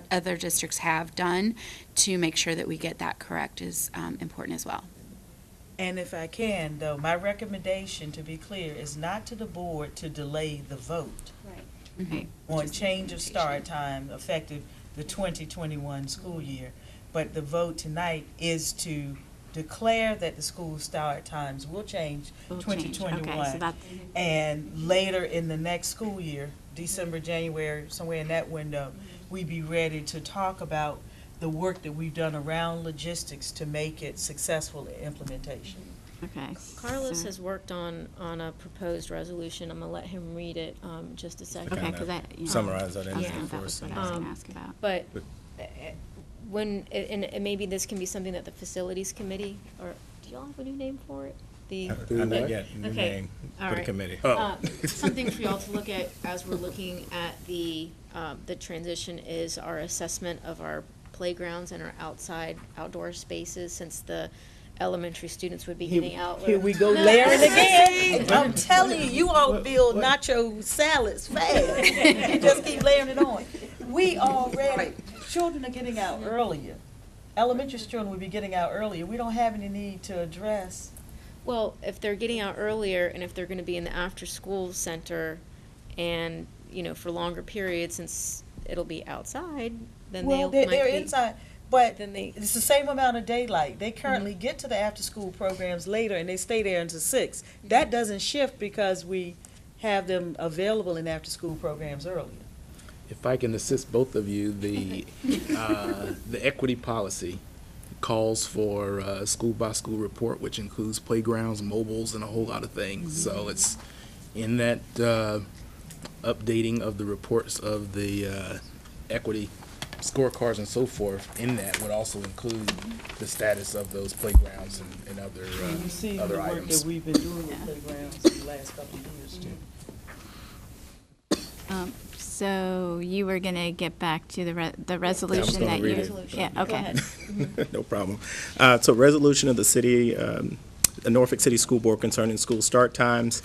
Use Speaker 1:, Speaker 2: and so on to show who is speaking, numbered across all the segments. Speaker 1: that other districts have done to make sure that we get that correct is um, important as well.
Speaker 2: And if I can, though, my recommendation, to be clear, is not to the board to delay the vote
Speaker 3: Mm-hmm.
Speaker 1: Mhm.
Speaker 2: on change of start time effective the 2021 school year. But the vote tonight is to declare that the school start times will change
Speaker 1: Will change. Okay, so
Speaker 2: 2021.
Speaker 1: that-
Speaker 2: And later in the next school year, December, January, somewhere in that window, we be ready to talk about the work that we've done around logistics to make it successful in implementation.
Speaker 1: Okay.
Speaker 4: Carlos
Speaker 3: Hmm.
Speaker 1: So-
Speaker 4: has worked on, on a proposed resolution. I'm gonna let him read it, um, just a second.
Speaker 1: Okay,
Speaker 3: kinda
Speaker 1: because that. yeah.
Speaker 3: summarize that
Speaker 1: I
Speaker 3: in
Speaker 1: was
Speaker 4: there
Speaker 1: gonna-
Speaker 3: for
Speaker 1: That was
Speaker 3: us
Speaker 1: what
Speaker 3: and-
Speaker 1: I was gonna
Speaker 4: Um,
Speaker 1: ask about.
Speaker 4: But
Speaker 3: But-
Speaker 4: uh, when, and, and maybe this can be something that the facilities committee, or, do y'all have a new name for it? The.
Speaker 3: I- I know yet, new
Speaker 4: Okay,
Speaker 3: name
Speaker 4: all
Speaker 3: for the
Speaker 4: right.
Speaker 3: committee.
Speaker 5: Oh.
Speaker 3: Oh.
Speaker 4: Uh, Something for y'all to look at as we're looking at the, um, the transition is our assessment of our playgrounds and our outside, outdoor spaces, since the elementary students would be getting out. Um,
Speaker 2: Here we go,
Speaker 4: No.
Speaker 2: Larry again. I'm telling you, you all build nacho salads fast. You just keep layering it on. We already, children are getting out earlier. Elementary children will be getting out earlier. We don't have any need to address.
Speaker 4: Well, if they're getting out earlier and if they're gonna be in the after-school center and, you know, for longer periods, since it'll be outside, then they
Speaker 2: Well, they're,
Speaker 4: might
Speaker 2: they're
Speaker 4: be-
Speaker 2: inside, but
Speaker 4: Then they- Mm-hmm.
Speaker 2: it's the same amount of daylight. They currently get to the after-school programs later and they stay there until six.
Speaker 4: Mm-hmm.
Speaker 2: That doesn't shift because we have them available in after-school programs earlier.
Speaker 5: If I can assist both of you, the, uh, the equity policy calls for uh, a school-by-school report, which includes playgrounds, mobiles, and a whole lot of things.
Speaker 4: Mm-hmm.
Speaker 5: So it's in that uh, updating of the reports of the uh, equity scorecards and so forth, in that would also include the status of those playgrounds and- and other,
Speaker 2: And you see
Speaker 5: uh,
Speaker 2: the
Speaker 5: other
Speaker 2: work that
Speaker 5: items.
Speaker 2: we've been doing with playgrounds the last couple of years too.
Speaker 6: Um, So you were going to get back to the, re- the resolution
Speaker 3: gonna
Speaker 6: that you.
Speaker 3: read it.
Speaker 6: Yeah,
Speaker 4: Go
Speaker 6: okay.
Speaker 4: ahead.
Speaker 3: No problem. Uh, So resolution of the city, um, the Norfolk City School Board concerning school start times.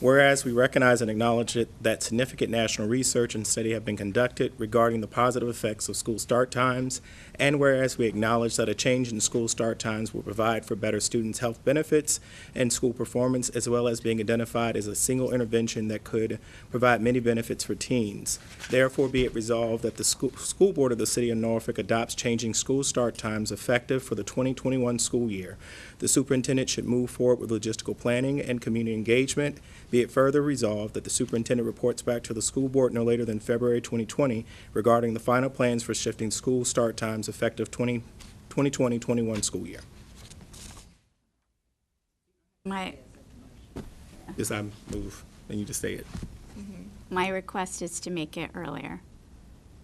Speaker 3: Whereas we recognize and acknowledge it- that significant national research and study have been conducted regarding the positive effects of school start times, and whereas we acknowledge that a change in school start times will provide for better students' health benefits and school performance, as well as being identified as a single intervention that could provide many benefits for teens. Therefore, be it resolved that the school, school board of the city of Norfolk adopts changing school start times effective for the 2021 school year. The superintendent should move forward with logistical planning and community engagement. Be it further resolved that the superintendent reports back to the school board no later than February 2020 regarding the final plans for shifting school start times effective 20 2020-21 school year.
Speaker 6: My,
Speaker 3: Is I move, and you just say it.
Speaker 6: my request is to make it earlier.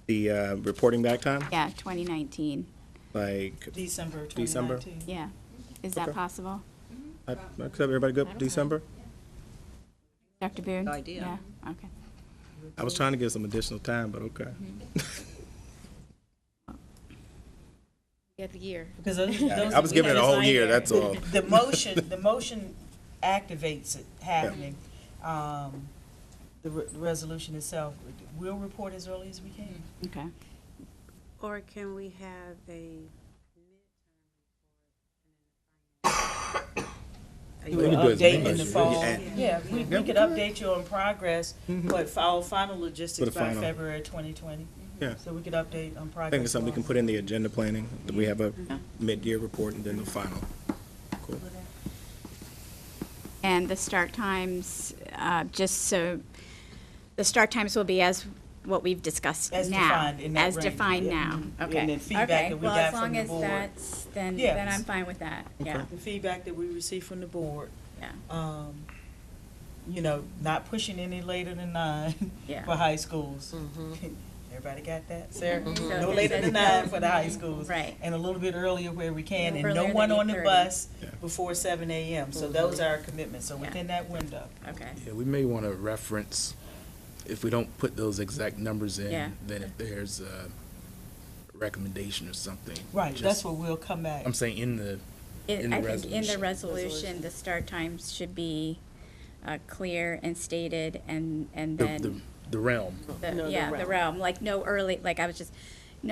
Speaker 3: The uh, reporting back time,
Speaker 6: Yeah, 2019.
Speaker 3: like,
Speaker 2: December
Speaker 3: December.
Speaker 2: 2019.
Speaker 6: Yeah. Is that
Speaker 3: Okay.
Speaker 6: possible?
Speaker 3: I- is everybody good, December?
Speaker 6: Dr. Boone?
Speaker 2: Good idea.
Speaker 6: Yeah, okay.
Speaker 3: I was trying to give some additional time, but okay.
Speaker 4: Yeah, the year.
Speaker 2: Because those,
Speaker 3: Yeah,
Speaker 2: those
Speaker 3: I was
Speaker 2: we
Speaker 3: giving it
Speaker 2: had
Speaker 3: a
Speaker 4: the
Speaker 3: whole
Speaker 4: sign
Speaker 3: year,
Speaker 4: there.
Speaker 3: that's all.
Speaker 2: The motion, the motion activates it happening. Um, The re- the resolution itself, we'll report as early as we can.
Speaker 1: Mm-hmm.
Speaker 3: Um,
Speaker 6: Okay.
Speaker 7: Or can we have a?
Speaker 2: We will
Speaker 5: can do it as
Speaker 2: update
Speaker 5: many
Speaker 2: in the
Speaker 5: as-
Speaker 2: fall.
Speaker 3: yeah. Mm-hmm.
Speaker 2: Yeah, we, we could update you on progress, but for our final logistics
Speaker 3: For the
Speaker 2: by
Speaker 3: final.
Speaker 2: February 2020.
Speaker 3: Yeah.
Speaker 2: So we could update on progress.
Speaker 3: I think it's something we can
Speaker 2: along.
Speaker 3: put in the agenda planning, that we have a mid-year report and then the final. Cool.
Speaker 6: And the start times, uh, just so, the start times will be as what we've discussed now.
Speaker 2: As defined in that
Speaker 6: As
Speaker 2: range.
Speaker 6: defined
Speaker 2: Yeah.
Speaker 6: now,
Speaker 2: Mhm. And
Speaker 6: okay.
Speaker 2: then feedback
Speaker 6: Okay.
Speaker 2: that we
Speaker 6: Well,
Speaker 2: got
Speaker 6: as
Speaker 2: from
Speaker 6: long
Speaker 2: the
Speaker 6: as
Speaker 2: board.
Speaker 6: that's, then,
Speaker 2: Yeah.
Speaker 6: then I'm fine with that, yeah,
Speaker 2: The feedback that we received from the board,
Speaker 6: yeah,
Speaker 2: um, you know, not pushing any later than nine
Speaker 6: yeah.
Speaker 2: for high schools. Everybody got that, Sarah?
Speaker 6: So
Speaker 2: No
Speaker 6: it
Speaker 2: later than
Speaker 6: says
Speaker 2: nine
Speaker 6: no.
Speaker 2: for the high schools.
Speaker 6: Mm-hmm. Right.
Speaker 2: And a little bit earlier where we can, and no
Speaker 6: Earlier
Speaker 2: one
Speaker 6: than
Speaker 2: on the
Speaker 6: 8:30.
Speaker 2: bus
Speaker 3: Yeah.
Speaker 2: before seven AM. So those are our commitments, so
Speaker 6: Yeah.
Speaker 2: within that window.
Speaker 6: Okay,
Speaker 5: Yeah, we may want to reference, if we don't put those exact numbers
Speaker 6: Yeah.
Speaker 5: in, then if there's a recommendation or something.
Speaker 2: Right,
Speaker 5: just-
Speaker 2: that's what we'll come back.
Speaker 5: I'm saying in the,
Speaker 6: It-
Speaker 5: In the
Speaker 6: I think in the
Speaker 5: resolution.
Speaker 6: resolution, the start times should be uh, clear and stated and, and
Speaker 5: the- the,
Speaker 6: then,
Speaker 5: the realm.
Speaker 6: the- yeah, the realm, like no early, like I was just,